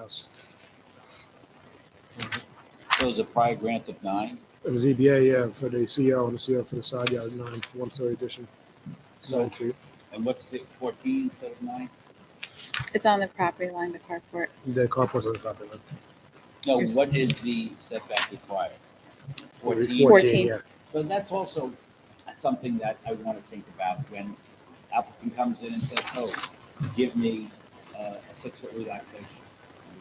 us. So is a prior grant of nine? And the ZBA, yeah, for the CO and the CO for the side yard, nine, one-story addition, nine So, feet. and what's the fourteen instead of nine? It's on the property line, the carport. The carport's on the property line. No, what is the setback required? Fourteen? Fourteen. Yeah, So that's also something that I want to think about when applicant comes in and says, oh, give me uh, a six foot relaxation.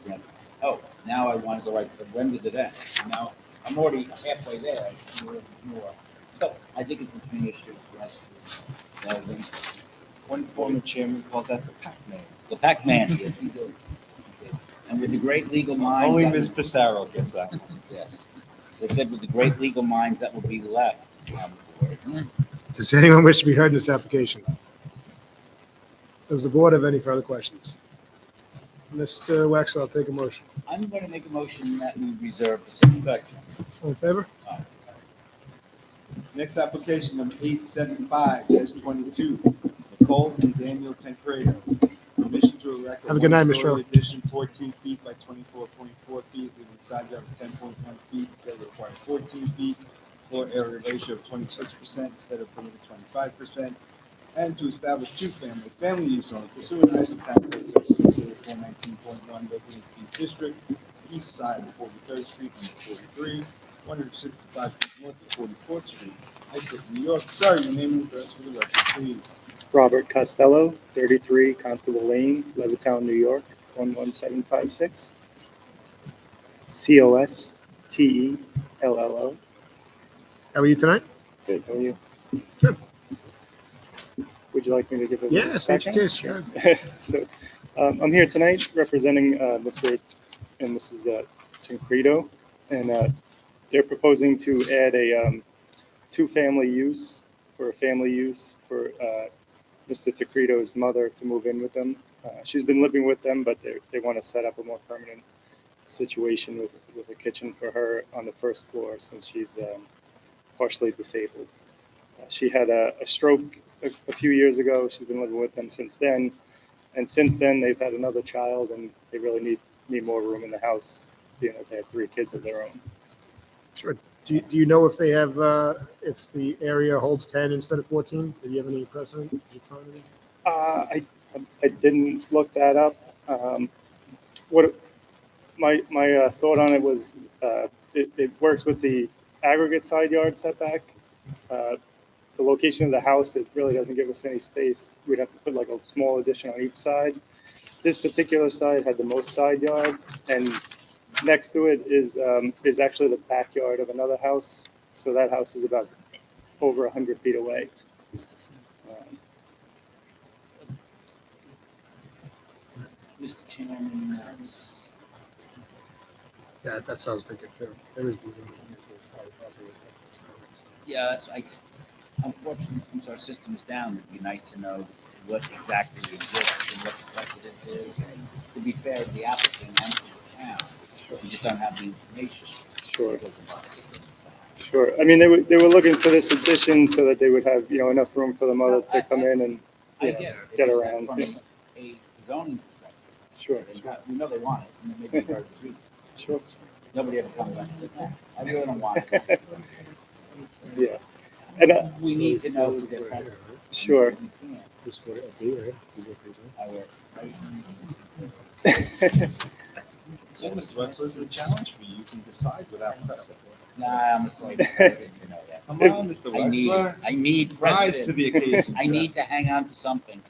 And again, Oh, now I want to go right, but when does it end? Now, I'm already halfway there, I can do a little bit more. So I think it's between issues for us to, know them. One former chairman called that the Pac-Man. the Pac-Man, yes, he did. He did. And with the great legal minds. Only that Ms. Pissarro gets that. Yes. They said with the great legal minds that will be left um, on the board. Does anyone wish to be heard in this application? Does the board have any further questions? Mr. Waxel, I'll take a motion. I'm going to make a motion that we reserve the sixth section. All in favor? Next application, number eight seven five twenty-two, Nicole and Daniel Tancredo. Permission to erect. Have a good night, Miss one-story Addition fourteen feet by twenty-four point four feet with a side yard of ten point one feet instead of required fourteen feet. Floor area ratio of twenty-six percent instead of permitted twenty-five percent. And to establish two-family, family use on pursuant to Issac Town Code Section six oh eight four nineteen point one, residence B district, east side of Forty-third Street, number forty-three, one hundred sixty-five north of Forty-fourth Street, Issac, New York. Sorry, your name and address for the record, please. Robert Costello, 33 Constable Lane, Levittown, New York, 11756. C O S T E L L O. How are you tonight? Good, how are you? Good. Would you like me to give a? Yeah, state your background? case, sure. so um, I'm here tonight representing uh, Mr. and Mrs. Uh, Tancredo, and uh, they're proposing to add a um, two-family use for a family use for uh, Mr. Tancredo's mother to move in with them. Uh, she's been living with them, but they they want to set up a more permanent situation with with a kitchen for her on the first floor since she's um, partially disabled. Uh, she had a, a stroke a, a few years ago. She's been living with them since then, and since then they've had another child, and they really need need more room in the house. You know, they have three kids of their own. Do you, do you know if they have, uh, if the area holds ten instead of fourteen? Do you have any precedent? Did you find any? Uh, I I didn't look that up. Um, what my my uh, thought on it was, uh, it, it works with the aggregate side yard setback. Uh, the location of the house, it really doesn't give us any space. We'd have to put like a small addition on each side. This particular side had the most side yard, and next to it is um, is actually the backyard of another house. So that house is about over hundred feet away. Um, Mr. Chairman, uh, s- Yeah, that's what I was thinking too. There is. yeah, that's- I, unfortunately, since our system is down, it'd be nice to know what exactly exists and what the precedent is. And To be fair to the applicant and to the town, we just don't have the information. Sure. Sure. I mean, they were, they were looking for this addition so that they would have, you know, enough room for the mother to come in and, I you get know, it. get It's around From to- a zoning perspective. sure, They've got- We know they want it, and it may be very good. sure. Nobody ever comes back and says, I really don't want it. Yeah, and, uh, We need to know their precedent. sure. We can't. Just for it, right? Is it crazy? I will. So, Mr. Wexler, this is a challenge for you. You can decide without precedent. Nah, I'm a slave. You know that. Come on, Mr. I need, Wexler. I need Rise to precedent. the occasion. I sir. need to hang on to something.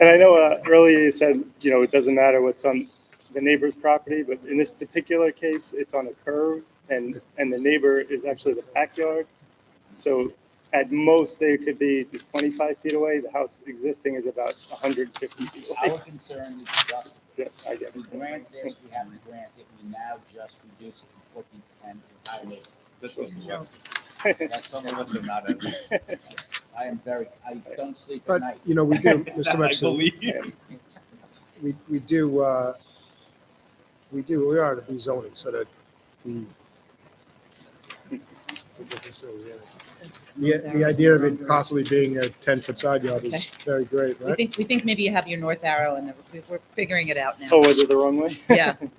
And I know, uh, earlier you said, you know, it doesn't matter what's on the neighbor's property, but in this particular case, it's on a curve and, and the neighbor is actually the backyard. So at most, they could be just twenty-five feet away. The house existing is about hundred and fifty feet away. Our concern is justice. Yeah, I get If we grant this, we have to grant it, we now just reduce it from fourteen to ten entirely. That's Mr. Wexler. it. That's some of us are not as. I am very, I don't sleep at But, night. you know, we do, Mr. I Wexler, believe you. we, we do, uh, we do, we are to be zoning so that the. The, the idea of it possibly being a ten-foot side yard is Okay. very great, We right? think, we think maybe you have your north arrow and we're- we're figuring it out now. Oh, was it the wrong way? Yeah,